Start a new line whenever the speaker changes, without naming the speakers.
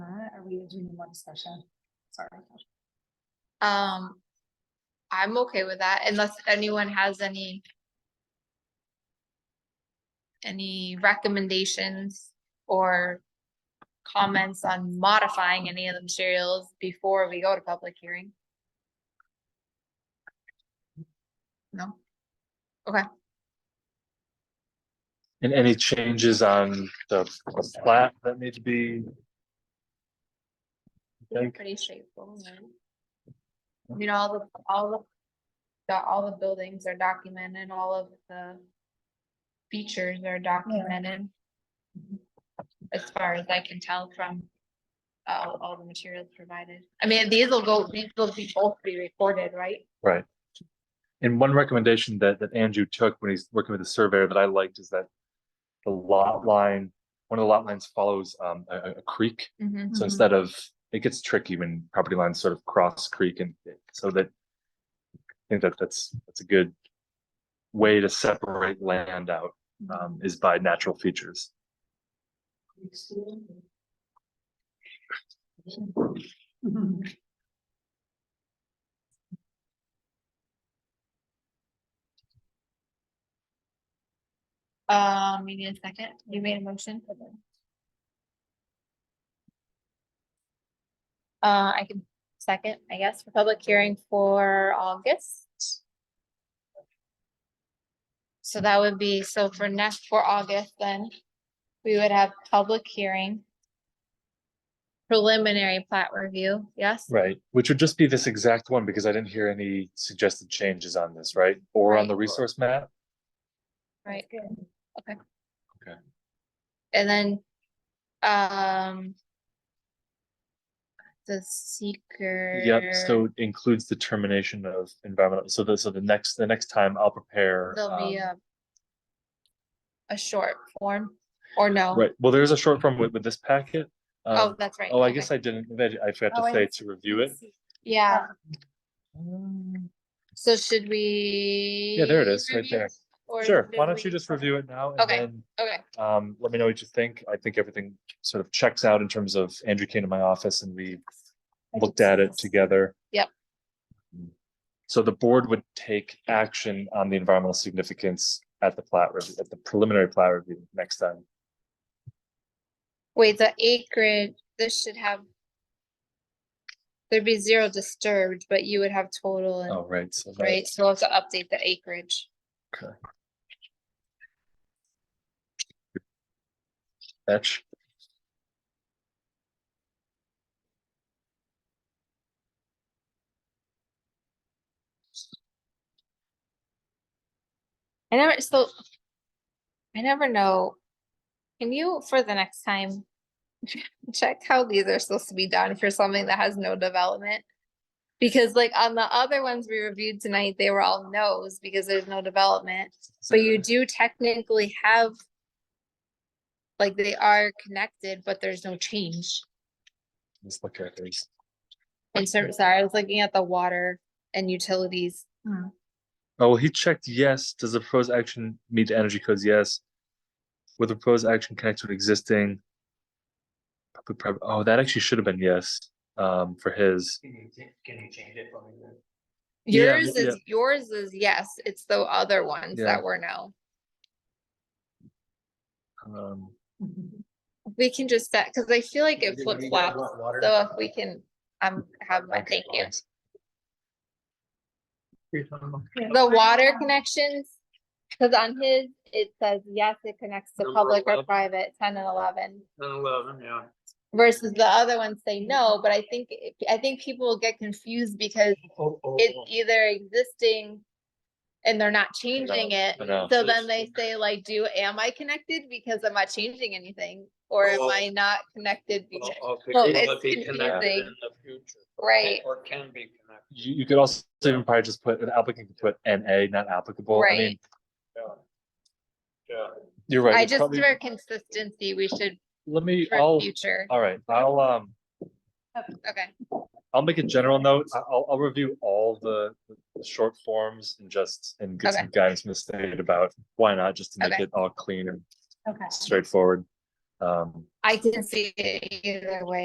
we are doing one session. Sorry.
Um, I'm okay with that unless anyone has any any recommendations or comments on modifying any of the materials before we go to public hearing? No?
And any changes on the the plat that need to be? I think,
Pretty straightforward. I mean, all the, all the, the- all the buildings are documented, all of the features are documented. As far as I can tell from all, all the materials provided. I mean, these will go, these will be both be recorded, right?
Right. And one recommendation that, that Andrew took when he's working with the surveyor that I liked is that the lot line, one of the lot lines follows, um, a, a- a creek.
Mm-hmm.
So instead of, it gets tricky when property lines sort of cross creek and so that. I think that that's, that's a good way to separate land out, um, is by natural features.
Um, you need a second, you made a motion? Uh, I can second, I guess, for public hearing for August. So that would be, so for next, for August, then, we would have public hearing. Preliminary plat review, yes?
Right, which would just be this exact one because I didn't hear any suggested changes on this, right? Or on the resource map?
Right. Okay.
Okay.
And then, um. The seeker.
Yep, so it includes the termination of environmental, so the, so the next, the next time I'll prepare.
There'll be
um,
a. A short form, or no?
Right, well, there's a short form with, with this packet.
Oh,
Um,
that's right.
oh, I
okay.
guess I didn't, I I forgot
Oh,
to
I
say
didn't
to review it.
Yeah,
Um,
so should we?
Yeah, there it is, right
review
there.
or
Sure,
should
why don't
we-
you just review it now? and
Okay.
then,
Okay,
Um, let me know what you think. I think everything sort of checks out in terms of Andrew came to my office and we looked at it together.
Yep.
So the board would take action on the environmental significance at the plat review, at the preliminary plat review next time.
wait, the acreage, this should have. There'd be zero disturbed, but you would have total and.
Oh, right, so. that-
Right, so we'll have to update the acreage.
Okay. Fetch.
I never, so. I never know. Can you, for the next time? Check how these are supposed to be done for something that has no development. Because like on the other ones we reviewed tonight, they were all no's because there's no development, but you do technically have. Like they are connected, but there's no change.
Let's look at these.
And so, sorry, I was looking at the water and utilities.
Oh, well, he checked yes. Does the proposed action meet the energy codes? Yes. Will the proposed action connect to an existing? public pri- Oh, that actually should have been yes, um, for his.
Can you, ta- can you change it from the?
Yeah,
Yours
yeah.
is, yours is yes, it's the other ones
Yeah.
that were no.
Um,
We can just set, because I feel like
You
it
did-
flip
you did
flops,
want water?
so if we can, um, have my thank you. The water connections, because on his, it says, yes, it connects to
Number
public or
11.
private, ten and eleven.
Nine eleven, yeah.
Versus the other ones say no,
Mm-hmm.
but I think, it- I think people will get confused because
Oh, oh, oh.
it's either existing. And they're not changing it,
I know.
so then they say like, do, am I connected because I'm not changing anything? Or am
Oh.
I not connected because,
Well, okay,
Well,
will
it's
it be connected
confusing.
in the future?
right?
Or can be connected.
You, you could also even probably just put, an applicant could put NA, not applicable. I
Right.
mean,
Yeah. Yeah.
you're right.
I
it's
just,
probably-
for consistency, we should,
Let me,
for
I'll,
future,
all right, I'll, um.
okay,
I'll make a general note. I- I'll, I'll review all the, the short forms and just, and get some guidance from the state about why not, just to make
Okay.
it all clean and
Okay.
straightforward. Um,
I can see it either way.